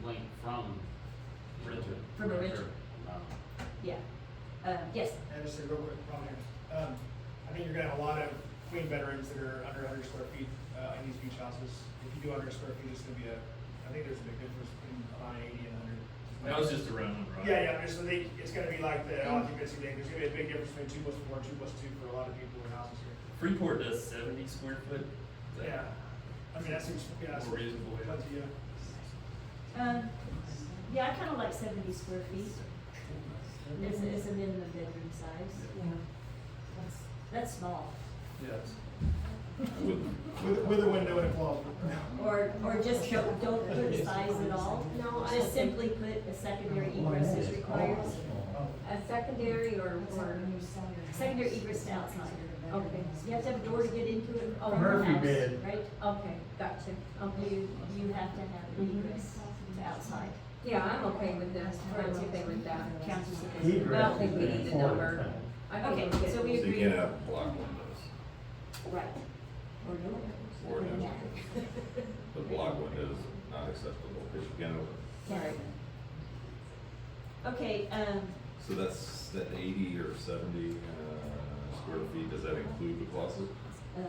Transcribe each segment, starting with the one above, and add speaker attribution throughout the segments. Speaker 1: from Um, Richard.
Speaker 2: From a Richard.
Speaker 1: No.
Speaker 2: Yeah, uh, yes,
Speaker 3: And just a real quick comment, um, I think you're gonna have a lot of Queen veterans that are under hundred square feet, uh, in these beach houses. If you do under square feet, it's gonna be a, I think there's a big difference between about eighty and hundred.
Speaker 4: That was just a round one, right?
Speaker 3: Yeah, yeah, I'm just, I think it's gonna be like the occupancy thing, there's gonna be a big difference between two plus four, two plus two for a lot of people in houses here.
Speaker 4: Freeport does seventy square foot. Is that-
Speaker 3: Yeah, I mean, that seems, yeah, that's.
Speaker 4: More reasonable, yeah.
Speaker 3: Plenty, yeah.
Speaker 2: um, yeah, I kinda like seventy square feet, it's, it's a minimum bedroom size,
Speaker 5: Yeah. That's-
Speaker 2: that's small.
Speaker 4: Yes.
Speaker 3: With, with a window and a closet.
Speaker 2: Or, or just don't, don't put size at all,
Speaker 5: No, I
Speaker 2: just
Speaker 5: think-
Speaker 2: simply put a secondary egress as required,
Speaker 5: A secondary or, or,
Speaker 2: secondary egress to outside.
Speaker 5: okay,
Speaker 2: You have to have a door to get into it from your
Speaker 6: Murphy
Speaker 2: house,
Speaker 6: bed.
Speaker 2: right? Um,
Speaker 5: okay, gotcha, okay.
Speaker 2: You, you have to have an
Speaker 5: Mm-hmm.
Speaker 2: egress to outside.
Speaker 5: Yeah, I'm okay with this, I'm okay with that.
Speaker 2: Council's
Speaker 6: He
Speaker 2: opinion.
Speaker 5: I don't
Speaker 6: dresses
Speaker 5: think we
Speaker 6: in
Speaker 5: need the
Speaker 6: Florida
Speaker 5: number.
Speaker 6: town.
Speaker 5: I think
Speaker 2: Okay,
Speaker 5: we'll get
Speaker 2: so we
Speaker 5: this.
Speaker 2: agree.
Speaker 7: To get out of block windows,
Speaker 2: Right. Or no.
Speaker 7: Or no.
Speaker 2: Yeah.
Speaker 7: the block windows not acceptable, because you can open.
Speaker 2: Sorry. Okay, um,
Speaker 7: So that's that eighty or seventy, uh, square feet, does that include the closet?
Speaker 2: uh,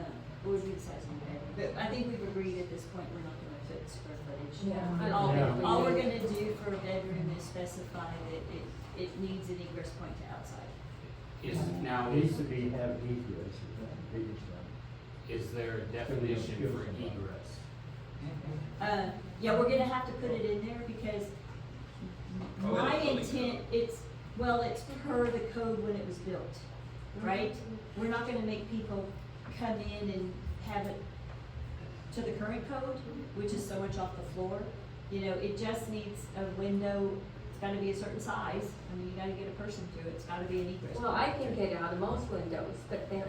Speaker 2: what would be the size of the bedroom? But I think we've agreed at this point, we're not gonna fit square footage.
Speaker 5: Yeah.
Speaker 2: And all,
Speaker 6: Yeah.
Speaker 2: all we're gonna do for a bedroom is specify that it, it needs an egress point to outside.
Speaker 1: Is, now,
Speaker 6: Needs
Speaker 1: is,
Speaker 6: to be have egress, is that the biggest one.
Speaker 1: is there a definition for egress?
Speaker 2: Uh, yeah, we're gonna have to put it in there because
Speaker 7: Oh, in the
Speaker 2: my
Speaker 7: building
Speaker 2: intent,
Speaker 7: code.
Speaker 2: it's, well, it's per the code when it was built, right? We're not gonna make people come in and have it to the current code, which is so much off the floor. You know, it just needs a window, it's gotta be a certain size, I mean, you gotta get a person through it, it's gotta be an egress.
Speaker 5: Well, I can get out of most windows, but then,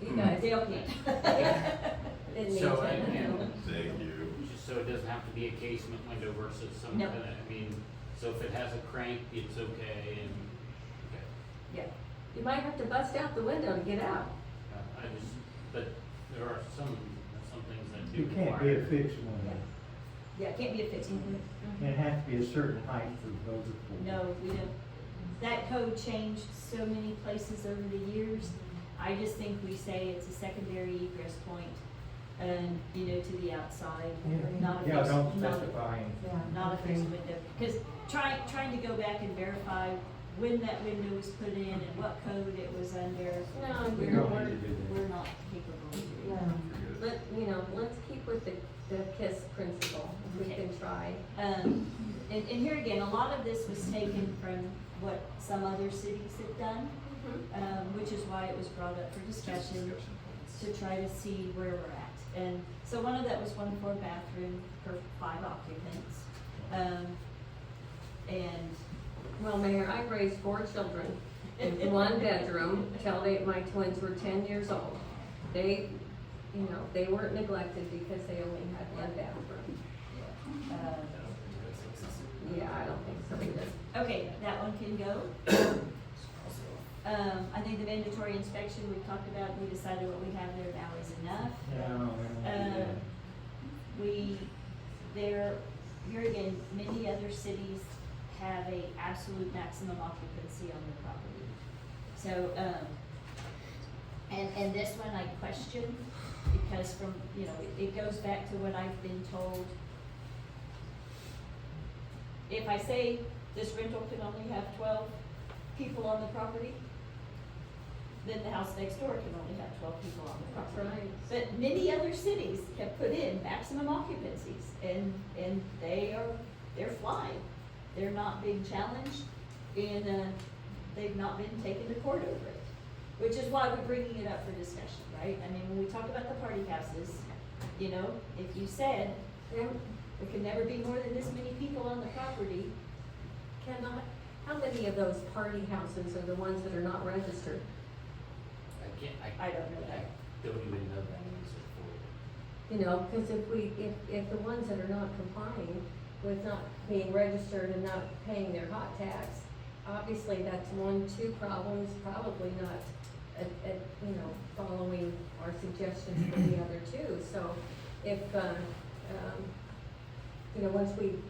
Speaker 5: you
Speaker 2: No,
Speaker 5: guys,
Speaker 2: Dale can't.
Speaker 5: it needs
Speaker 1: So,
Speaker 5: it.
Speaker 1: and- and-
Speaker 7: Thank you.
Speaker 1: Just so it doesn't have to be a casement window versus some
Speaker 2: No.
Speaker 1: kind of, I mean, so if it has a crank, it's okay and, okay.
Speaker 5: Yeah, you might have to bust out the window to get out.
Speaker 1: Uh, I just, but there are some, some things that do
Speaker 6: You can't be
Speaker 1: require.
Speaker 6: a fixed one,
Speaker 2: Yeah, it can't be a fixed one.
Speaker 6: it has to be a certain height for those.
Speaker 2: No, we don't. That code changed so many places over the years. I just think we say it's a secondary egress point, and, you know, to the outside, not a
Speaker 6: Yeah,
Speaker 2: fixed,
Speaker 6: don't
Speaker 2: not,
Speaker 6: specify any.
Speaker 2: not a fixed window. Because trying, trying to go back and verify when that window was put in and what code it was under,
Speaker 5: No,
Speaker 6: We
Speaker 5: we're,
Speaker 6: don't
Speaker 5: we're,
Speaker 6: need to do
Speaker 2: we're not capable of doing.
Speaker 5: no.
Speaker 7: You're good.
Speaker 5: Let, you know, let's keep with the, the KISS principle, if we
Speaker 2: Okay.
Speaker 5: can try.
Speaker 2: Um, and, and here again, a lot of this was taken from what some other cities have done, um, which is why it was brought up for discussion. to try to see where we're at. And so one of that was one for a bathroom for five occupants. Um, and,
Speaker 5: Well, Mayor, I raised four children in one bedroom till they, my twins were ten years old. They, you know, they weren't neglected because they only had one bathroom.
Speaker 2: uh,
Speaker 5: Yeah, I don't think so either.
Speaker 2: okay, that one can go. Um, I think the mandatory inspection we talked about, we decided what we have there now is enough.
Speaker 6: No, we don't do
Speaker 2: Uh,
Speaker 6: that.
Speaker 2: We, there, here again, many other cities have a absolute maximum occupancy on their property. So, um, and, and this one I question, because from, you know, it, it goes back to what I've been told. If I say this rental can only have twelve people on the property, then the house next door can only have twelve people on the property.
Speaker 5: That's right.
Speaker 2: But many other cities have put in maximum occupancies and, and they are, they're flying. They're not being challenged and, uh, they've not been taken to court over it. Which is why we're bringing it up for discussion, right? I mean, when we talk about the party houses, you know, if you said,
Speaker 5: There
Speaker 2: there can never be more than this many people on the property,
Speaker 5: cannot, how many of those party houses are the ones that are not registered?
Speaker 1: I can't, I.
Speaker 2: I don't know that.
Speaker 1: I don't even know that answer for you.
Speaker 5: You know, because if we, if, if the ones that are not complying with not being registered and not paying their hot tax, obviously that's one, two problems, probably not, at, at, you know, following our suggestions for the other two. So if, uh, um, you know, once we